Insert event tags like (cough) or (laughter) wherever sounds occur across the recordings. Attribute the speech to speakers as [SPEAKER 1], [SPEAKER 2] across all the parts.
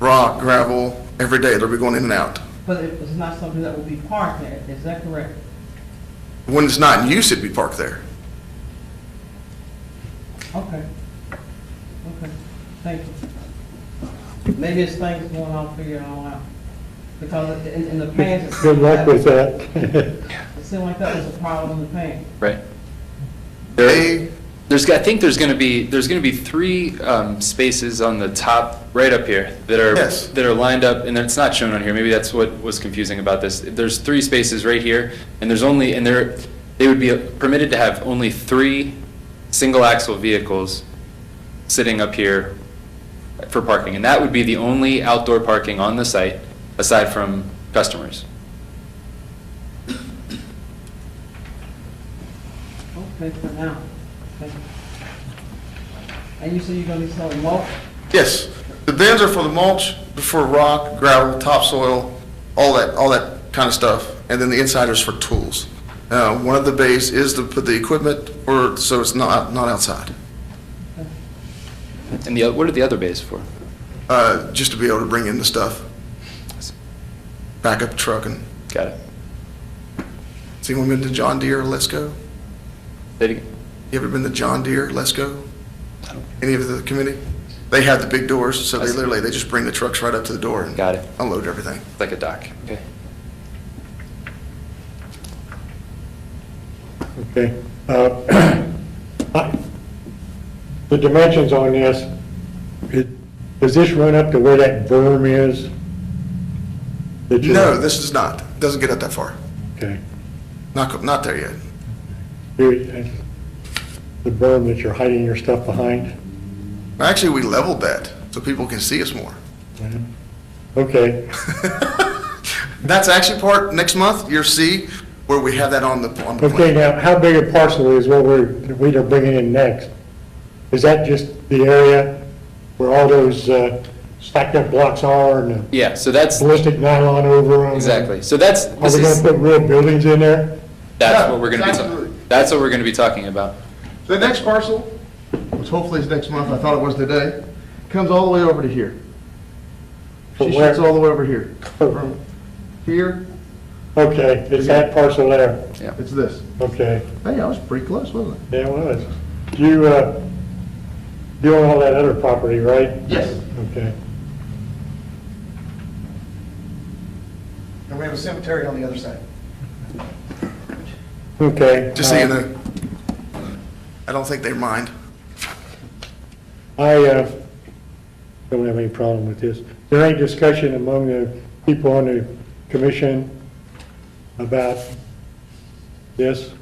[SPEAKER 1] rock, gravel, every day, they'll be going in and out.
[SPEAKER 2] But it was not something that would be parked there, is that correct?
[SPEAKER 1] When it's not in use, it'd be parked there.
[SPEAKER 2] Okay. Okay, thank you. Maybe it's things going on, figure it all out. Because in, in the past. it
[SPEAKER 3] Good
[SPEAKER 2] seemed
[SPEAKER 3] luck with
[SPEAKER 2] like-
[SPEAKER 3] that.
[SPEAKER 2] It seemed like that was a problem in the past.
[SPEAKER 4] Right.
[SPEAKER 1] They,
[SPEAKER 4] There's, I think there's going to be, there's going to be three um, spaces on the top, right up here, that are,
[SPEAKER 1] Yes.
[SPEAKER 4] that are lined up, and it's not shown on here, maybe that's what was confusing about this. There's three spaces right here, and there's only, and there, they would be permitted to have only three single-axle vehicles sitting up here for parking, and that would be the only outdoor parking on the site, aside from customers.
[SPEAKER 2] Okay, for now. Thank you. And you say you're gonna be selling mulch?
[SPEAKER 1] yes, the bins are for the mulch, for rock, gravel, topsoil, all that, all that kind of stuff. And then the inside is for tools. Uh, one of the bays is to put the equipment or, so it's not, not outside.
[SPEAKER 4] And the, oth- what are the other bays for?
[SPEAKER 1] Uh, just to be able to bring in the stuff. Back up truck and,
[SPEAKER 4] Got it.
[SPEAKER 1] has anyone been to John Deere, or Let's Go?
[SPEAKER 4] Say it again.
[SPEAKER 1] You ever been to John Deere, Let's Go? Any of the committee? They have the big doors, so
[SPEAKER 4] I
[SPEAKER 1] they
[SPEAKER 4] see.
[SPEAKER 1] literally, they just bring the trucks right up to the door and
[SPEAKER 4] Got it.
[SPEAKER 1] unload everything.
[SPEAKER 4] Like a dock. Okay.
[SPEAKER 3] (laughs) Okay. uh, (clears throat) I- The dimensions on this, it- does this run up to where that berm is? That you-
[SPEAKER 1] No, this is not, doesn't get up that far.
[SPEAKER 3] Okay.
[SPEAKER 1] Not, co- not there yet.
[SPEAKER 3] Here, The berm that you're hiding your stuff behind?
[SPEAKER 1] Actually, we leveled that so people can see us more. (laughs)
[SPEAKER 3] Okay,
[SPEAKER 1] That's actually part, next month, you'll see where we have that on the, on the
[SPEAKER 3] okay,
[SPEAKER 1] plan.
[SPEAKER 3] now, how big a parcel is what we're, we are bringing in next? Is that just the area where all those uh, stacked up blocks are and the
[SPEAKER 4] Yeah, so that's,
[SPEAKER 3] ballistic nylon over them?
[SPEAKER 4] exactly, so that's,
[SPEAKER 3] Are
[SPEAKER 4] this
[SPEAKER 3] we gonna
[SPEAKER 4] is,
[SPEAKER 3] put real buildings in there?
[SPEAKER 4] that's what we're gonna be,
[SPEAKER 1] Absolutely.
[SPEAKER 4] talking. that's what we're gonna be talking about.
[SPEAKER 1] The next parcel, which hopefully is next month, I thought it was today, comes all the way over to here.
[SPEAKER 3] From where?
[SPEAKER 1] the way over here. here,
[SPEAKER 3] Okay, it's that parcel there,
[SPEAKER 1] it's this.
[SPEAKER 3] okay,
[SPEAKER 1] Hey, I was pretty close, wasn't
[SPEAKER 3] yeah, it was. You, uh, you own all that other property, right?
[SPEAKER 1] Yes.
[SPEAKER 3] Okay,
[SPEAKER 5] And we have a cemetery on the other side.
[SPEAKER 3] okay.
[SPEAKER 1] Just so you
[SPEAKER 3] uh,
[SPEAKER 1] know, I don't think they mind.
[SPEAKER 3] I uh, don't have any problem with this. There ain't discussion among the people on the commission about this?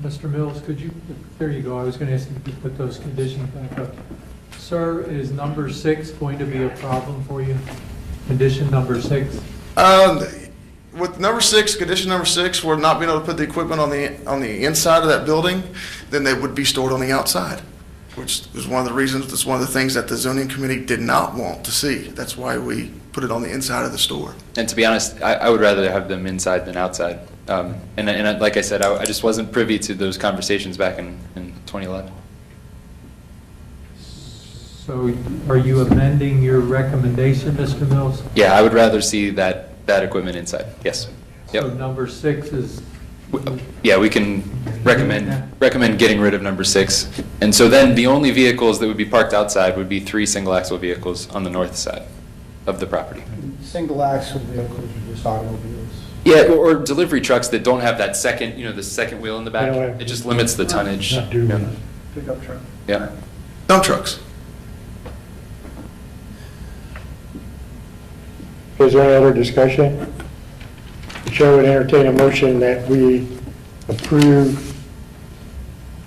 [SPEAKER 6] Mr. Mills, could you, there you go, I was going to ask you to put those conditions back up. Sir, is number six going to be a problem for you? Condition number six?
[SPEAKER 1] Um, with number six, condition number six, we're not being able to put the equipment on the, on the inside of that building, then they would be stored on the outside, which is one of the reasons, that's one of the things that the zoning committee did not want to see. That's why we put it on the inside of the store.
[SPEAKER 4] And to be honest, I, I would rather have them inside than outside. Um, and, I- and I- like I said, I, I just wasn't privy to those conversations back in, in 2011.
[SPEAKER 6] So are you amending your recommendation, Mr. Mills?
[SPEAKER 4] Yeah, I would rather see that, that equipment inside, yes.
[SPEAKER 6] So
[SPEAKER 4] Yep.
[SPEAKER 6] number six is,
[SPEAKER 4] W- uh, Yeah, we can recommend, recommend getting rid of number six. And so then the only vehicles that would be parked outside would be three single axle vehicles on the north side of the property.
[SPEAKER 5] Single axle vehicles are just automobiles.
[SPEAKER 4] Yeah, or, or delivery trucks that don't have that second, you know, the second wheel in the back.
[SPEAKER 3] Yeah, yeah.
[SPEAKER 4] It just limits the tonnage.
[SPEAKER 3] Not doing it.
[SPEAKER 5] Pickup truck.
[SPEAKER 4] Yeah.
[SPEAKER 1] Dump trucks.
[SPEAKER 3] Is there any other discussion? The Chair would entertain a motion that we approve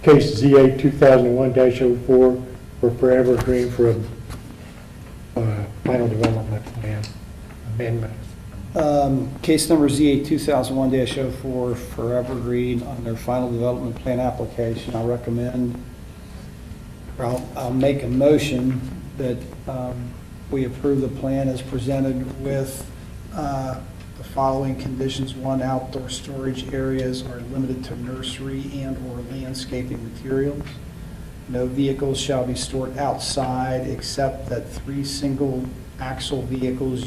[SPEAKER 3] case ZA 2001-04 for Forever Green for a uh, final development plan amendment.
[SPEAKER 5] Um, Case number ZA 2001-04 for Evergreen on their final development plan application. I recommend, or I'll, I'll make a motion that um, we approve the plan as presented with uh, the following conditions. One, outdoor storage areas are limited to nursery and/or landscaping materials. No vehicles shall be stored outside except that three single axle vehicles